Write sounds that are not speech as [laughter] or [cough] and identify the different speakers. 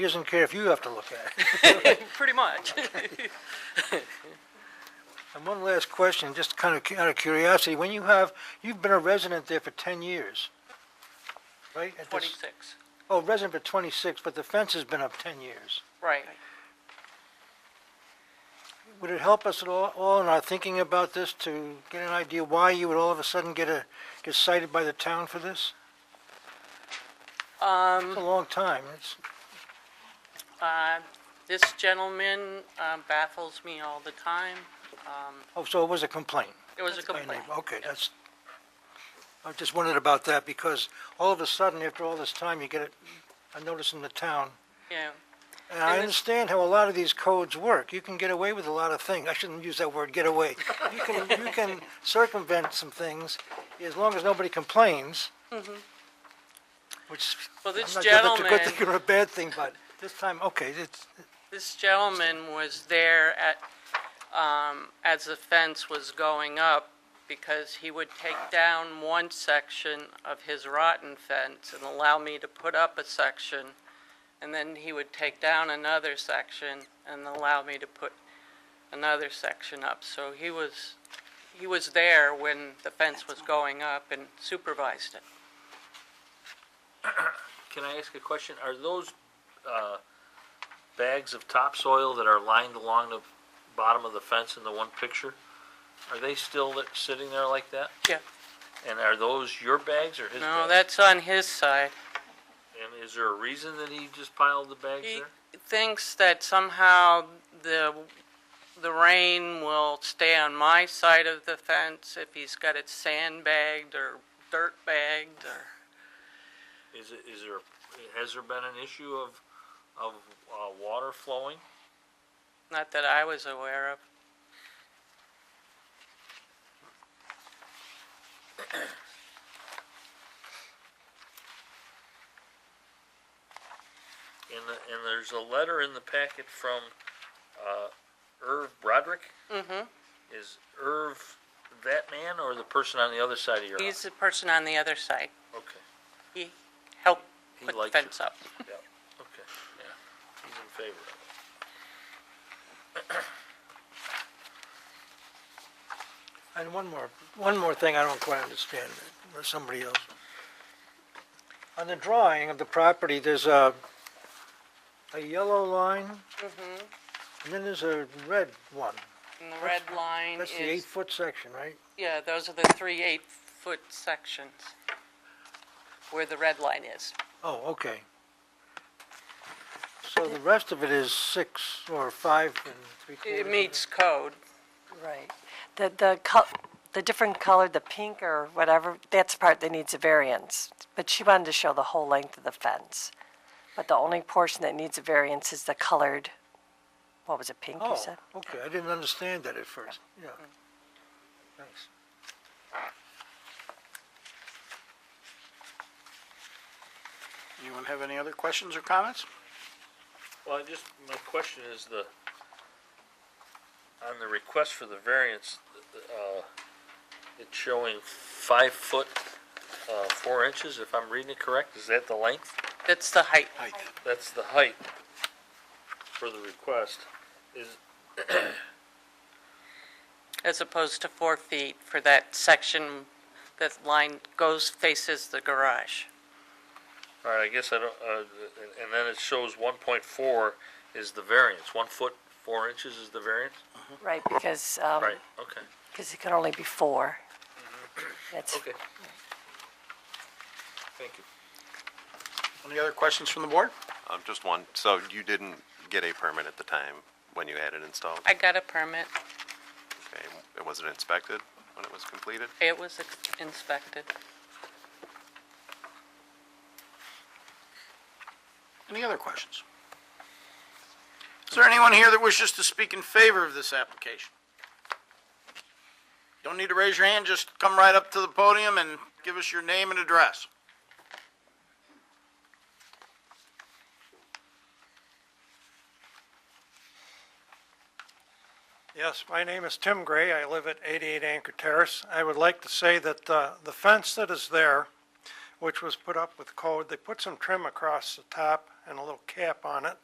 Speaker 1: He doesn't care if you have to look at it. [laughs]
Speaker 2: [laughs] Pretty much. [laughs]
Speaker 1: And one last question, just kind of cu- out of curiosity, when you have, you've been a resident there for 10 years, right? At this-
Speaker 2: 26.
Speaker 1: Oh, resident for 26, but the fence has been up 10 years.
Speaker 2: Right.
Speaker 1: Would it help us at all, all in our thinking about this to get an idea why you would all of a sudden get a, get cited by the town for this? It's a
Speaker 2: Um,
Speaker 1: long time. It's,
Speaker 2: uh, this gentleman um, baffles me all the time. Um,
Speaker 1: oh, so it was a complaint?
Speaker 2: it was a
Speaker 1: by
Speaker 2: complaint.
Speaker 1: name. Okay, that's, I just wondered about that because all of a sudden, after all this time, you get a, a notice in the town
Speaker 2: Yeah.
Speaker 1: And I
Speaker 2: And it-
Speaker 1: understand how a lot of these codes work. You can get away with a lot of things. I shouldn't use that word, get away. You can, you can
Speaker 2: [laughs]
Speaker 1: circumvent some things as long as nobody complains. Which,
Speaker 2: Mm-hmm. Well,
Speaker 1: I'm not
Speaker 2: this
Speaker 1: sure that's a good
Speaker 2: gentleman-
Speaker 1: thing or a bad thing, but this time, okay, it's,
Speaker 2: This gentleman was there at, um, as the fence was going up because he would take down one section of his rotten fence and allow me to put up a section. And then he would take down another section and allow me to put another section up. So he was, he was there when the fence was going up and supervised it.
Speaker 3: Can I ask a question? Are those uh, bags of topsoil that are lined along the bottom of the fence in the one picture, are they still li- sitting there like that?
Speaker 2: Yeah.
Speaker 3: And are those your bags or his
Speaker 2: No,
Speaker 3: bags?
Speaker 2: that's on his side.
Speaker 3: And is there a reason that he just piled the bags
Speaker 2: He
Speaker 3: there?
Speaker 2: thinks that somehow the, the rain will stay on my side of the fence if he's got it sandbagged or dirt bagged or,
Speaker 3: Is, it- is there, has there been an issue of, of uh, water flowing?
Speaker 2: not that I was aware of.
Speaker 3: And, the- and there's a letter in the packet from uh, Irv Broderick?
Speaker 2: Mm-hmm.
Speaker 3: Is Irv that man or the person on the other side of your house?
Speaker 2: He's the person on the other side.
Speaker 3: Okay.
Speaker 2: He helped
Speaker 3: He
Speaker 2: put the
Speaker 3: liked you.
Speaker 2: fence up.
Speaker 3: Okay, yeah, he's in favor of it.
Speaker 1: and one more, one more thing I don't quite understand, or somebody else. On the drawing of the property, there's a, a yellow line,
Speaker 2: Mm-hmm.
Speaker 1: and then there's a red one.
Speaker 2: And the red line
Speaker 1: That's the
Speaker 2: is,
Speaker 1: eight-foot section, right?
Speaker 2: yeah, those are the three eight-foot sections where the red line is.
Speaker 1: Oh, okay. So the rest of it is six or five and three quarters?
Speaker 2: It meets code.
Speaker 4: Right. The, the, col- the different color, the pink or whatever, that's the part that needs a variance. But she wanted to show the whole length of the fence. But the only portion that needs a variance is the colored, what was it, pink you
Speaker 1: Oh,
Speaker 4: said?
Speaker 1: okay, I didn't understand that at first, yeah. Thanks.
Speaker 5: Anyone have any other questions or comments?
Speaker 3: Well, I just, my question is the, on the request for the variance, uh, it's showing five foot, uh, four inches, if I'm reading it correct, is that the length?
Speaker 2: That's the height.
Speaker 3: That's the height for the request, is,
Speaker 2: as opposed to four feet for that section that line goes, faces the garage.
Speaker 3: all right, I guess I don't, uh, and- and then it shows one point four is the variance, one foot, four inches is the variance?
Speaker 4: Right, because, um,
Speaker 3: Right, okay,
Speaker 4: because it can only be four. That's,
Speaker 3: okay. Thank you.
Speaker 5: Any other questions from the board?
Speaker 6: Um, just one. So you didn't get a permit at the time when you had it installed?
Speaker 2: I got a permit,
Speaker 6: Okay. And was it inspected when it was completed?
Speaker 2: it was inspected.
Speaker 5: Any other questions? Is there anyone here that wishes to speak in favor of this application? Don't need to raise your hand, just come right up to the podium and give us your name and address.
Speaker 7: Yes, my name is Tim Gray. I live at 88 Anchor Terrace. I would like to say that uh, the fence that is there, which was put up with code, they put some trim across the top, and a little cap on it.